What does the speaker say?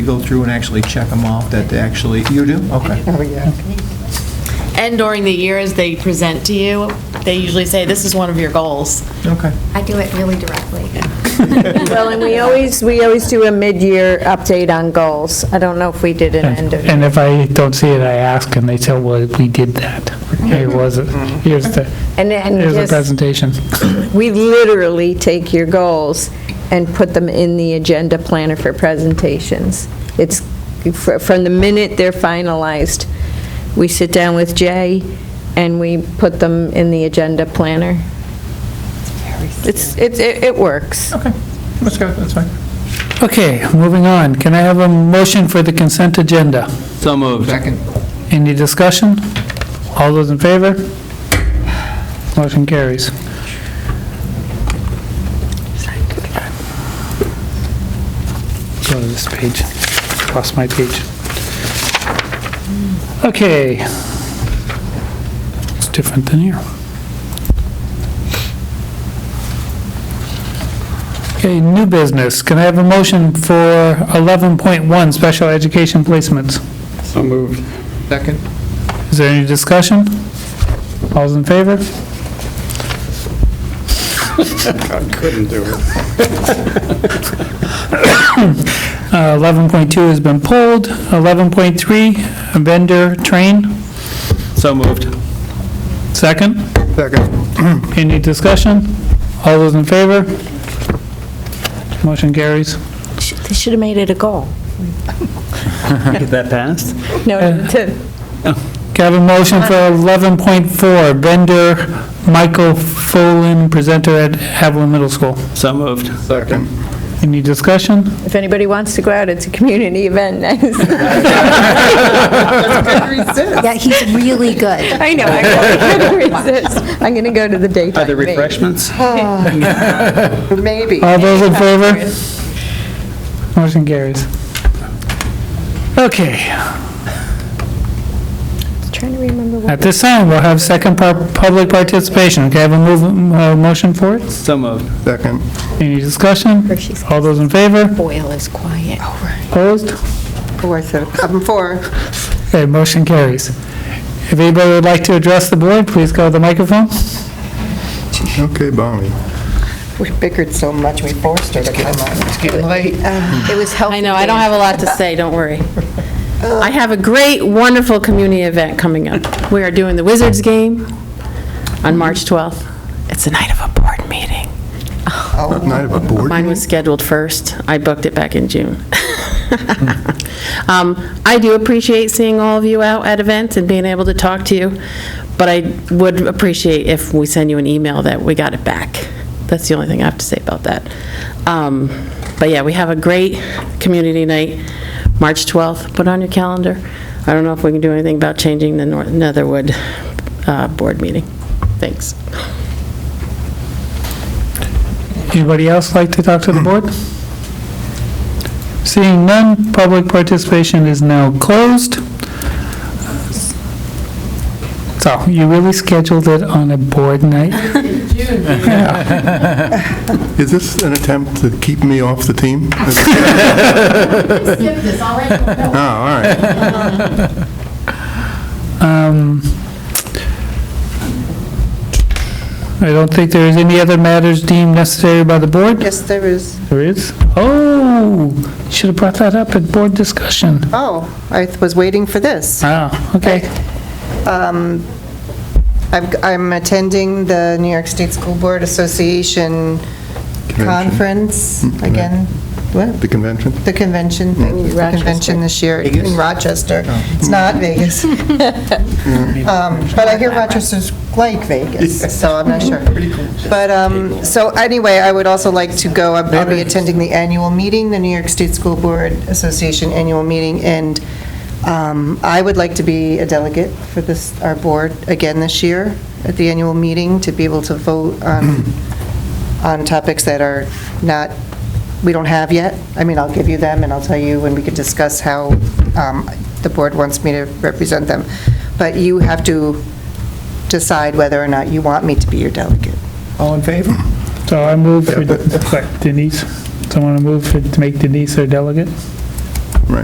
You go through and actually check them off that they actually, you do? Okay. Oh, yeah. And during the year, as they present to you, they usually say, this is one of your goals. Okay. I do it really directly. Well, and we always, we always do a mid-year update on goals. I don't know if we did an end of. And if I don't see it, I ask, and they tell, well, we did that. Here was it, here's the, And, and here's the just, presentation. we literally take your goals and put them in the agenda planner for presentations. It's, fr- from the minute they're finalized, we sit down with Jay and we put them in the agenda planner. It's, it, it it works. Okay. Let's go. That's fine. Okay, moving on. Can I have a motion for the consent agenda? So moved. Second. Any discussion? All those in favor? Motion carries. Go to this page. Lost my page. Okay. It's different than here. Okay, new business. Can I have a motion for 11.1, special education placements? So moved. Second. Is there any discussion? All's in favor? I couldn't do it. Uh, 11.2 has been pulled. 11.3, vendor train, So moved. second. Second. Any discussion? All those in favor? Motion carries. They should have made it a goal. Get that passed? No, to- Can I have a motion for 11.4, vendor Michael Folin, presenter at Haviland Middle School? So moved. Second. Any discussion? if anybody wants to go out, it's a community event. Yeah, he's really good. I know, I can't resist. I'm going to go to the daytime Other meeting. refreshments? Maybe. All those in favor? Motion carries. Okay. Trying to remember what, At this time, we'll have second par- public participation. Can I have a move, a motion for it? So moved. Second. Any discussion? Hershey's All those in favor? boil is quiet. Opposed? Four, so I'm um, four. Okay, motion carries. If anybody would like to address the board, please go to the microphone. Okay, Bonnie. We bickered so much, we forced her to come Uh, on. It's getting late. It was healthy. I know, I don't have a lot to say, don't worry. I have a great, wonderful community event coming up. We are doing the Wizards game on March 12th. It's the night of a board meeting. Night of a board Oh. Mine was scheduled first. I booked it back in June. Um, I do appreciate seeing all of you out at events and being able to talk to you, but I would appreciate if we send you an email that we got it back. That's the only thing I have to say about that. Um, But yeah, we have a great community night, March 12th. Put it on your calendar. I don't know if we can do anything about changing the Nor- Netherwood uh, Board meeting. Thanks. Anybody else like to talk to the board? Seeing none, public participation is now closed. So you really scheduled it on a board night? Is this an attempt to keep me off the team? Oh, all right. Um, I don't think there is any other matters deemed necessary by the board? Yes, there is. There is? Oh, should have brought that up at board discussion. Oh, I was waiting for this. Um, Ah, okay. I've- I'm attending the New York State School Board Association Conference again. What? The convention? The convention, thank you, the convention this year in Rochester. It's not Vegas. Um, But I hear Rochester's like Vegas, so I'm not sure. But, um, so anyway, I would also like to go, I'll I'll be attending the annual meeting, the New York State School Board Association annual meeting, and um, I would like to be a delegate for this, our board, again this year, at the annual meeting, to be able to vote on, on topics that are not we don't have yet. I mean, I'll give you them, and I'll tell you when we can discuss how um, the board wants me to represent them. But you have to decide whether or not you want me to be your delegate. All in favor? So I move for Denise. Someone to move for- to make Denise our delegate?